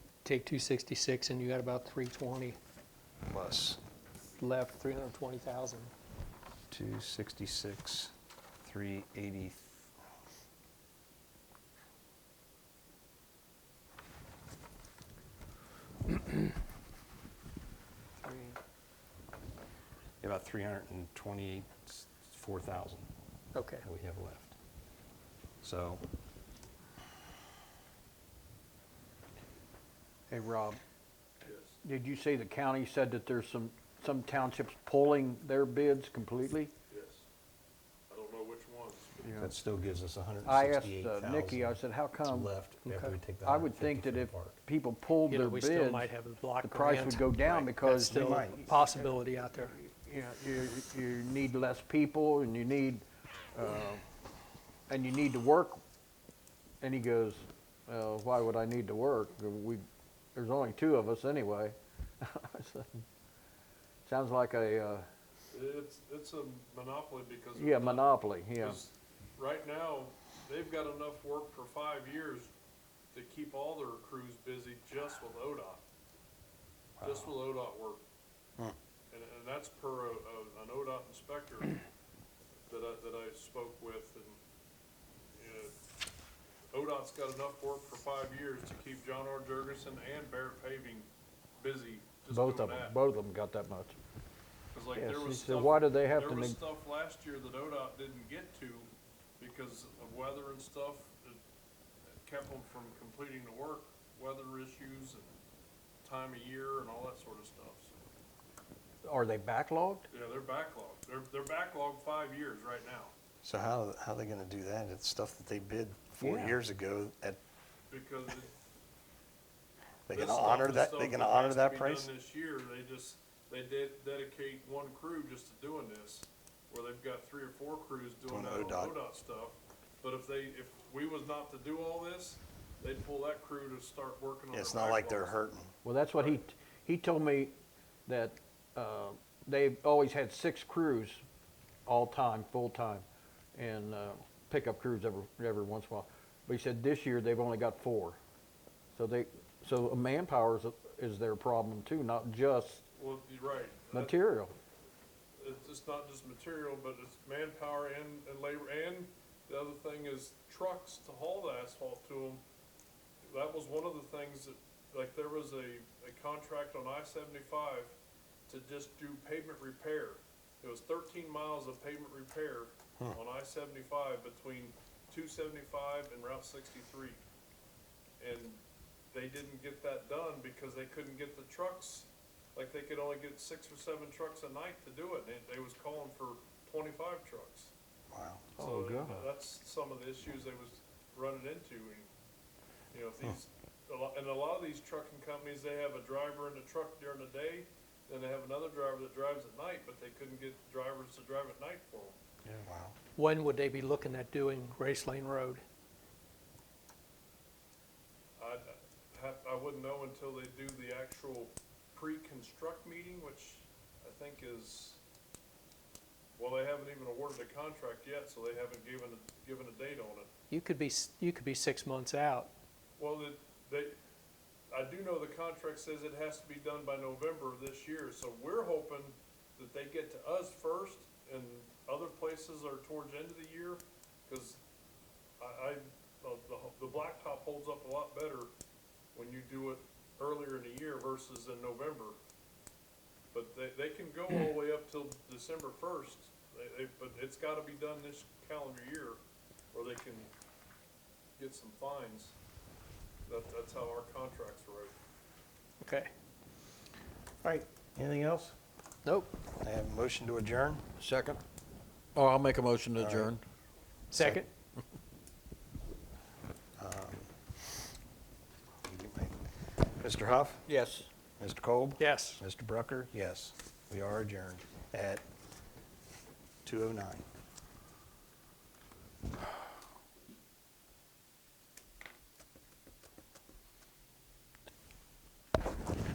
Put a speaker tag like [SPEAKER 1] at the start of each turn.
[SPEAKER 1] take two sixty-six and you got about three twenty
[SPEAKER 2] plus
[SPEAKER 1] left, three hundred and twenty thousand.
[SPEAKER 2] 266, 380. About 324,000
[SPEAKER 1] Okay,
[SPEAKER 2] that we have left. So,
[SPEAKER 3] Hey, Rob, did you say the county said that there's some, some townships pulling their bids completely?
[SPEAKER 4] Yes. I don't know which ones.
[SPEAKER 2] that still gives us
[SPEAKER 3] I asked uh,
[SPEAKER 2] 168,000.
[SPEAKER 3] Nikki, I said, how come?
[SPEAKER 2] Left after we
[SPEAKER 1] Okay.
[SPEAKER 2] take the
[SPEAKER 3] I would think
[SPEAKER 2] 150
[SPEAKER 3] that if
[SPEAKER 2] from the park.
[SPEAKER 3] people pulled
[SPEAKER 1] you know,
[SPEAKER 3] their
[SPEAKER 1] we
[SPEAKER 3] bids,
[SPEAKER 1] still might have a block
[SPEAKER 3] the
[SPEAKER 1] grant.
[SPEAKER 3] price would go down
[SPEAKER 1] That's
[SPEAKER 3] because, you
[SPEAKER 1] still
[SPEAKER 3] know,
[SPEAKER 1] a
[SPEAKER 2] might.
[SPEAKER 1] possibility out there.
[SPEAKER 3] you, you need less people and you need, uh, and you need to work. And he goes, uh, why would I need to work? We, there's only two of us anyway. I said, Sounds like a, uh,
[SPEAKER 4] It's, it's a monopoly because. of
[SPEAKER 3] yeah,
[SPEAKER 4] the-
[SPEAKER 3] monopoly, yeah.
[SPEAKER 4] 'cause Right now, they've got enough work for five years to keep all their crews busy just with ODOT. Just with ODOT work. And, and that's per a, a, an ODOT inspector that I, that I spoke with and, you know, ODOT's got enough work for five years to keep John R. Jurgensen and Barrett Paving busy just doing
[SPEAKER 3] Both
[SPEAKER 4] that.
[SPEAKER 3] of them, both of them got that much.
[SPEAKER 4] 'Cause like
[SPEAKER 3] Yes,
[SPEAKER 4] there
[SPEAKER 3] he
[SPEAKER 4] was
[SPEAKER 3] said,
[SPEAKER 4] stuff-
[SPEAKER 3] "Why do they have to
[SPEAKER 4] There was
[SPEAKER 3] neg-"
[SPEAKER 4] stuff last year that ODOT didn't get to because of weather and stuff that that kept them from completing the work, weather issues and time of year and all that sort of stuff. So,
[SPEAKER 3] Are they backlogged?
[SPEAKER 4] Yeah, they're backlogged. They're, they're backlogged five years right now
[SPEAKER 2] So how, how are they going to do that? It's stuff that they bid four
[SPEAKER 3] Yeah.
[SPEAKER 2] years ago at
[SPEAKER 4] because. it-
[SPEAKER 2] They
[SPEAKER 4] this
[SPEAKER 2] can
[SPEAKER 4] stuff
[SPEAKER 2] honor
[SPEAKER 4] is
[SPEAKER 2] that,
[SPEAKER 4] stuff
[SPEAKER 2] they can honor
[SPEAKER 4] has to
[SPEAKER 2] that
[SPEAKER 4] be done
[SPEAKER 2] price?
[SPEAKER 4] This year, they just, they did dedicate one crew just to doing this, where they've got three or four crews doing
[SPEAKER 2] Doing
[SPEAKER 4] that on
[SPEAKER 2] ODOT.
[SPEAKER 4] ODOT stuff. But if they, if we was not to do all this, they'd pull that crew to start working on
[SPEAKER 2] Yeah,
[SPEAKER 4] their
[SPEAKER 2] It's not like they're
[SPEAKER 4] backlogs.
[SPEAKER 2] hurting.
[SPEAKER 3] Well, that's what he, he told me that uh, they've always had six crews all time, full time, and uh, pickup crews every, every once in a while. But he said this year they've only got four. So they, so manpower is, is their problem too, not just
[SPEAKER 4] Well, you're right. That-
[SPEAKER 3] material.
[SPEAKER 4] It's, it's not just material, but it's manpower and, and labor, and the other thing is trucks to haul the asphalt to them. That was one of the things that, like, there was a, a contract on I seventy-five to just do pavement repair. It was thirteen miles of pavement repair on I seventy-five between two seventy-five and Route sixty-three. And they didn't get that done because they couldn't get the trucks, like they could only get six or seven trucks a night to do it, and they was calling for twenty-five trucks.
[SPEAKER 2] Wow.
[SPEAKER 3] Oh,
[SPEAKER 4] So that-
[SPEAKER 3] God.
[SPEAKER 4] that's some of the issues they was running into, and, you know, if these, a lot, and a lot of these trucking companies, they have a driver in the truck during the day, then they have another driver that drives at night, but they couldn't get drivers to drive at night for them.
[SPEAKER 2] Wow.
[SPEAKER 1] When would they be looking at doing Race Lane Road?
[SPEAKER 4] I, I wouldn't know until they do the actual pre-construct meeting, which I think is, well, they haven't even awarded a contract yet, so they haven't given, a- given a date on it.
[SPEAKER 1] You could be, s- you could be six months out.
[SPEAKER 4] Well, the- they, I do know the contract says it has to be done by November of this year, so we're hoping that they get to us first and other places are towards the end of the year, cause I, I, the, the ho- the blacktop holds up a lot better when you do it earlier in the year versus in November. But they, they can go all the way up till December first, they, they, but it's gotta be done this calendar year or they can get some fines. That, that's how our contracts wrote.
[SPEAKER 1] Okay.
[SPEAKER 2] All right, anything else?
[SPEAKER 3] Nope.
[SPEAKER 2] I have a motion to adjourn.
[SPEAKER 3] Second? Oh, I'll make a motion to
[SPEAKER 2] right.
[SPEAKER 3] adjourn.
[SPEAKER 1] Second?
[SPEAKER 2] Mr. Huff,
[SPEAKER 3] Yes.
[SPEAKER 2] Mr. Kolb,
[SPEAKER 1] Yes. oh
[SPEAKER 2] Mr. Brucker, yes, we are adjourned at 2:09.